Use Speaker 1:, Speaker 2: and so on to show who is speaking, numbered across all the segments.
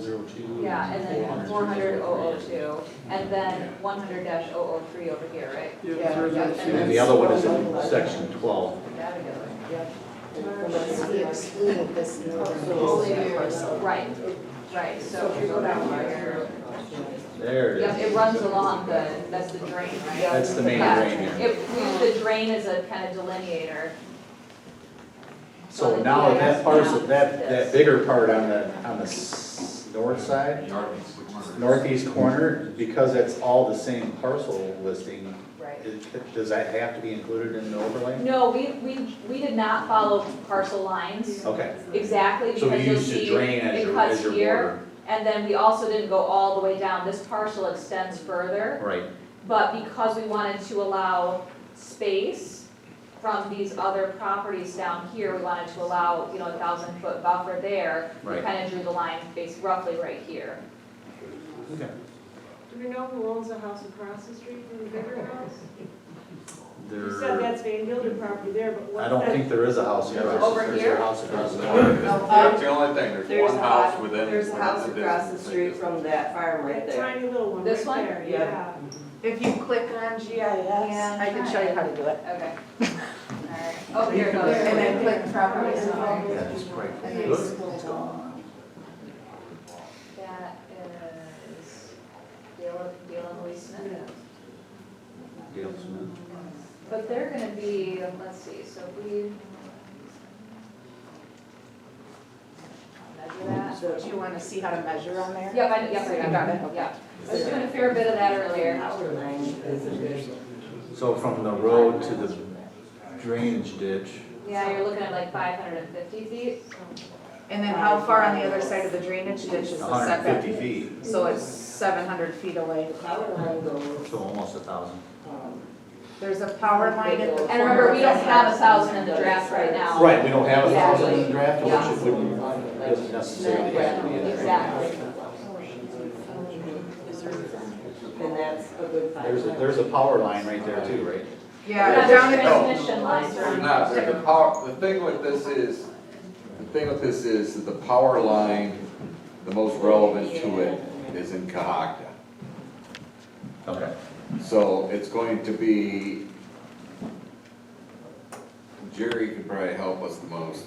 Speaker 1: two.
Speaker 2: Yeah, and then
Speaker 1: 400,
Speaker 2: four hundred oh oh
Speaker 1: 303.
Speaker 2: two, and then one hundred dash oh oh three over here, right?
Speaker 3: Yeah,
Speaker 4: And then
Speaker 3: yeah.
Speaker 4: the other one is in section twelve.
Speaker 2: That'd be good.
Speaker 3: Unless we excluded this.
Speaker 2: Right, right, so if you go down here,
Speaker 4: There
Speaker 2: yep,
Speaker 4: it
Speaker 2: it
Speaker 4: is.
Speaker 2: runs along the, that's the drain, right?
Speaker 4: That's the main
Speaker 2: Yeah.
Speaker 4: drain here.
Speaker 2: If we use the drain as a kind of delineator,
Speaker 4: So now that parcel, that, that bigger part on the, on the s- north side, northeast corner, because that's all the same parcel listing,
Speaker 2: right?
Speaker 4: it- does that have to be included in the overlay?
Speaker 2: No, we, we, we did not follow parcel lines
Speaker 4: Okay.
Speaker 2: exactly because
Speaker 4: So we
Speaker 2: you'll
Speaker 4: used to
Speaker 2: see
Speaker 4: drain as
Speaker 2: it
Speaker 4: your,
Speaker 2: cuts
Speaker 4: as your
Speaker 2: here.
Speaker 4: border.
Speaker 2: And then we also didn't go all the way down. This parcel extends further.
Speaker 4: Right,
Speaker 2: But because we wanted to allow space from these other properties down here, we wanted to allow, you know, a thousand foot buffer there. We
Speaker 4: Right.
Speaker 2: kind of drew the line base roughly right here.
Speaker 4: okay.
Speaker 5: Do we know who owns the house across the street from the bigger house? You said
Speaker 4: There,
Speaker 5: that's Van Gilder property there, but
Speaker 4: I
Speaker 5: what's
Speaker 4: don't think
Speaker 5: that?
Speaker 4: there is a house
Speaker 1: Yeah,
Speaker 4: across.
Speaker 2: over
Speaker 4: there's a
Speaker 2: here?
Speaker 4: house across the
Speaker 1: That's the only thing, there's
Speaker 6: There's
Speaker 1: one
Speaker 6: a
Speaker 1: house
Speaker 6: hot-
Speaker 1: within.
Speaker 6: There's a house
Speaker 1: within
Speaker 6: across the
Speaker 1: distance.
Speaker 6: street from that farm right
Speaker 5: That
Speaker 6: there.
Speaker 5: tiny little one
Speaker 2: This
Speaker 5: right
Speaker 2: one?
Speaker 5: there,
Speaker 6: Yeah.
Speaker 5: yeah.
Speaker 3: If you click on GIS,
Speaker 2: Yeah,
Speaker 3: I can show you how to do it.
Speaker 2: Okay. Alright, oh, here it
Speaker 3: And
Speaker 2: goes.
Speaker 3: then click properties and all.
Speaker 4: Yeah, just right.
Speaker 3: And then
Speaker 4: Look.
Speaker 3: scroll down.
Speaker 2: That is Gail, Gail and Lee Smith. But they're gonna be, let's see, so if we. Measure that.
Speaker 3: So do you want to see how to measure on there?
Speaker 2: Yep, I, yep, I
Speaker 3: You
Speaker 2: got
Speaker 3: got
Speaker 2: it,
Speaker 3: it, okay.
Speaker 2: yeah. I was doing a fair bit of that earlier.
Speaker 4: So from the road to the drainage ditch,
Speaker 2: Yeah, you're looking at like five hundred and fifty feet.
Speaker 3: And then how far on the other side of the drainage ditch is the
Speaker 4: hundred and fifty
Speaker 3: setback?
Speaker 4: feet,
Speaker 3: So it's seven hundred feet away.
Speaker 4: so almost a thousand.
Speaker 6: um,
Speaker 3: There's a power line at the corner.
Speaker 2: And remember, we don't
Speaker 3: of that.
Speaker 2: have a thousand in the draft right now.
Speaker 4: Right, we don't have a
Speaker 2: Yeah.
Speaker 4: thousand in the draft, which
Speaker 2: Yeah.
Speaker 4: it wouldn't, doesn't necessarily have to be in there.
Speaker 2: Exactly.
Speaker 6: And that's a good five.
Speaker 4: There's a, there's a power line right there too, right?
Speaker 3: Yeah,
Speaker 2: But
Speaker 3: down
Speaker 2: there's
Speaker 3: at,
Speaker 2: transmission lines
Speaker 1: There's
Speaker 2: are-
Speaker 1: not, the power, the thing with this is, the thing with this is that the power line, the most relevant to it is in Cahockta.
Speaker 4: Okay.
Speaker 1: So it's going to be, Jerry can probably help us the most,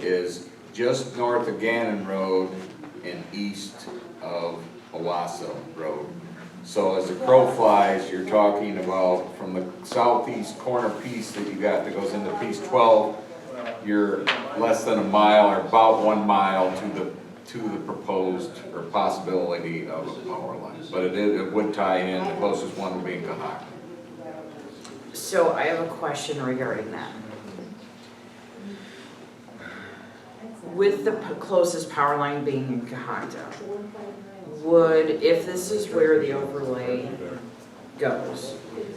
Speaker 1: is just north of Gannon Road and east of Owasso Road. So as the crow flies, you're talking about from the southeast corner piece that you got that goes into piece twelve, you're less than a mile or about one mile to the, to the proposed or possibility of a power line. But it is, it would tie in, the closest one would be in Cahock.
Speaker 7: So I have a question regarding that. With the p- closest power line being in Cahata, would, if this is where the overlay goes,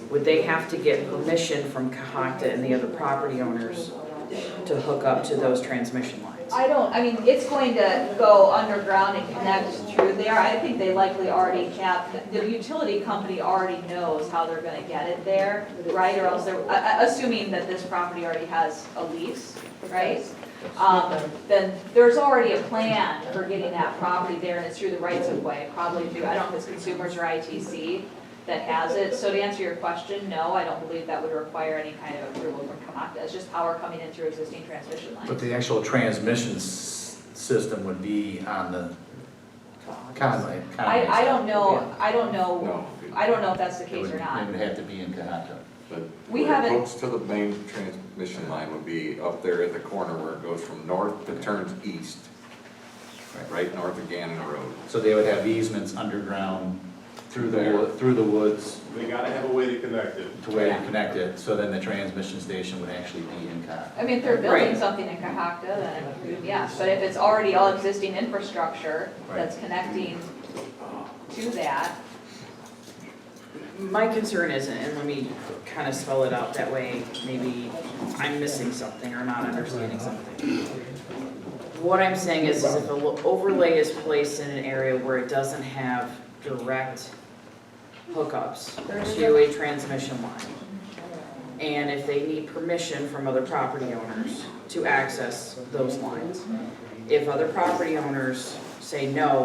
Speaker 7: would they have to get permission from Cahata and the other property owners
Speaker 6: uh,
Speaker 7: to hook up to those transmission lines?
Speaker 2: I don't, I mean, it's going to go underground and connect through there. I think they likely already have, the utility company already knows how they're gonna get it there, right? Or else they're, a- a- assuming that this property already has a lease, right? Um, then there's already a plan for getting that property there and it's through the rights of way, probably through, I don't know if it's consumers or ITC that has it. So to answer your question, no, I don't believe that would require any kind of approval from Kamaka. It's just power coming in through existing transmission lines.
Speaker 4: But the actual transmission s- system would be on the Conway, Conway.
Speaker 2: I, I don't know, I don't know,
Speaker 1: No.
Speaker 2: I don't know if that's the
Speaker 4: It
Speaker 2: case
Speaker 4: would,
Speaker 2: or
Speaker 4: it
Speaker 2: not.
Speaker 4: would have to be in Cahata.
Speaker 1: But
Speaker 2: We
Speaker 1: where it
Speaker 2: haven't-
Speaker 1: hooks to the main transmission line would be up there at the corner where it goes from north that turns east, right north of Gannon Road.
Speaker 4: So they would have easements underground through the,
Speaker 1: There.
Speaker 4: wo- through the woods
Speaker 8: They gotta have a way to connect it.
Speaker 4: to where
Speaker 2: Yeah.
Speaker 4: you connect it, so then the transmission station would actually be in Cahata.
Speaker 2: I mean, if they're building
Speaker 7: Right.
Speaker 2: something in Cahockta, then, yeah, but if it's already all existing infrastructure
Speaker 4: Right.
Speaker 2: that's connecting to that,
Speaker 7: My concern isn't, and let me kind of spell it out, that way maybe I'm missing something or not understanding something. What I'm saying is, is if an overlay is placed in an area where it doesn't have direct hookups to a transmission line, and if they need permission from other property owners to access those lines, if other property owners say no,